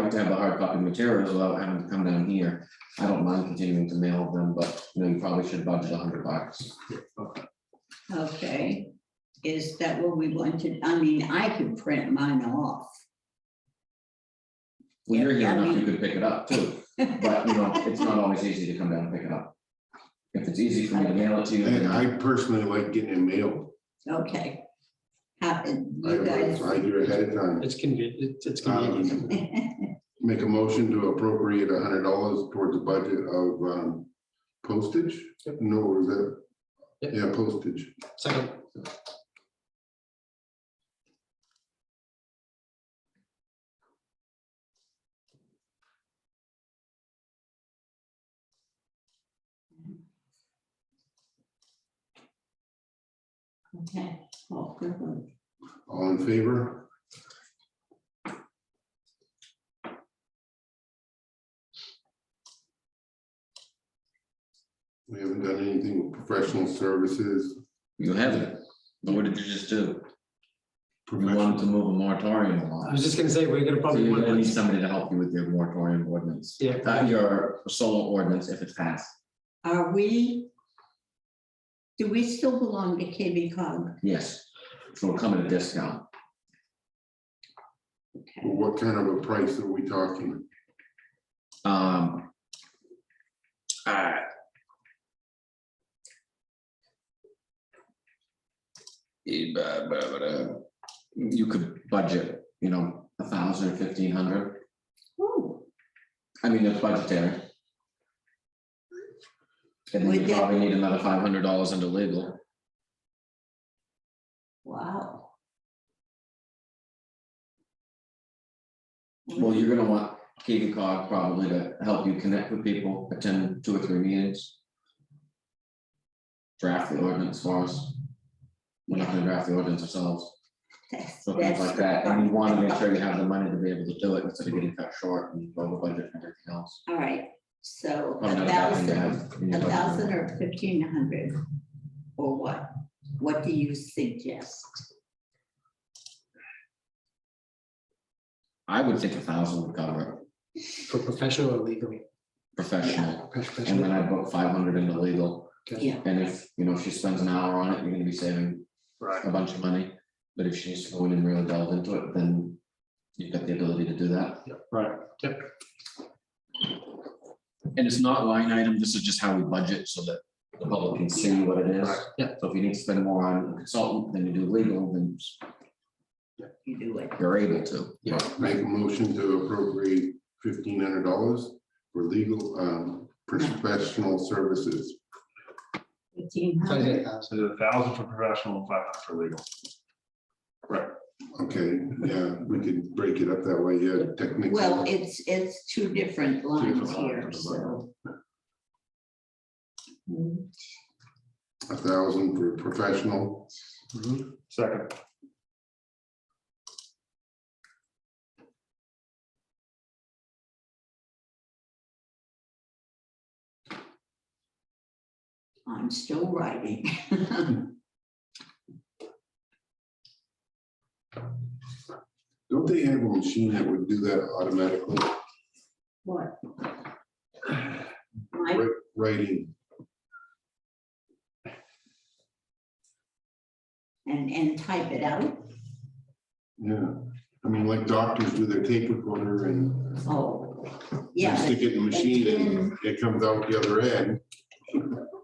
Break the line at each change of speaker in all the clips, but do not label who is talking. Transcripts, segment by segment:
like to have the hard copy materials without having to come down here. I don't mind continuing to mail them, but you know, you probably should budget a hundred bucks.
Okay, is that what we wanted? I mean, I could print mine off.
When you're here
Yeah, I
enough, you
mean-
could pick it up too, but you know, it's not always easy to come down and pick it up. If it's easy for me to mail it to you, then
And
I,
I personally like getting it mailed.
Okay. How-
I,
you guys.
I do it ahead of time.
It's convenient, it's
Uh,
convenient.
Um, Make a motion to appropriate a hundred dollars towards the budget of um, postage?
Yep.
No, or is that?
Yep.
Yeah, postage.
Second,
Okay, well, good one.
All in favor? We haven't done anything with professional services.
you have it. But what did you just do? We wanted
professional-
to move a moratorium along.
I was just gonna say, we're gonna
So
probably,
you're gonna
want
need
to-
somebody to help you with your moratorium ordinance,
yeah,
uh, your solar ordinance if it's passed.
Are we? Do we still belong to KB cog?
Yes, so it'll come at a discount.
Well, What kind of a price are we talking?
Um. I- Eh, bah, bah, bah, bah. You could budget, you know, a thousand or fifteen hundred.
Ooh,
I mean, it's budgetary. And then
Would
you
that-
probably need another five hundred dollars into legal.
wow.
Well, you're
Mm-hmm.
gonna want Katie Cog probably to help you connect with people, attend two or three meetings. Draft the ordinance for us. We're not gonna draft the ordinance ourselves.
That's-
So things like
that's-
that, and you want to make sure you have the money to be able to do it instead of getting cut short and over budget and everything else.
All right, so
Probably
a
not a bad thing to
thousand,
have in your
a
budget.
thousand or fifteen hundred? Or what? What do you suggest?
I would think a thousand would cover it,
for professional or legally.
professional, and then
Professional,
I'd put five hundred into legal,
okay.
Yeah,
and if, you know, if she spends an hour on it, you're gonna be saving
Right.
a bunch of money. But if she needs to go in and really delve into it, then you've got the ability to do that.
Right,
And it's not line item, this is just how we budget so that the public can see what it is.
yeah.
So if you need to spend more on consultant than you do legal, then
you do it.
you're able to.
Yeah.
Make a motion to appropriate fifteen hundred dollars for legal, um, professional services.
Fifteen
So uh, I
hundred,
did a thousand.
So a thousand for professional, and five hundred for legal.
Okay, yeah, we could break it up that way, yeah, technically.
well, it's, it's two different lines
different
here,
lines,
so. Mm,
A thousand for professional,
Mhm.
Second,
I'm still writing.
don't they have a machine that would do that automatically,
What? My
writing?
and, and type it out?
Yeah, I mean, like doctors do their tape recorder and
Oh,
they
yeah,
stick it in the machine and it comes out the other end.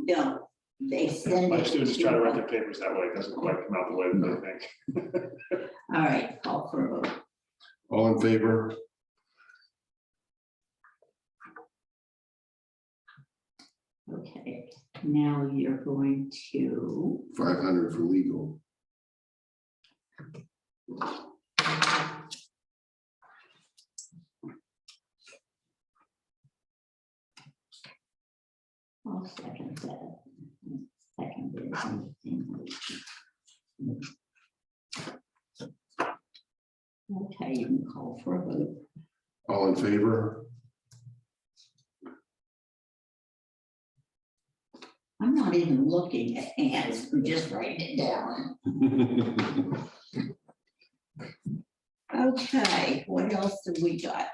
no, they send it.
my students try to write
to-
their papers that way, it doesn't quite come out the way that they think.
All right, call for a vote.
All in favor?
Okay, now you're going to,
Five hundred for legal.
I'll second that. Second is anything. Okay, you can call for a vote.
All in favor?
I'm not even looking at hands, I'm just writing it down. Okay, what else have we got?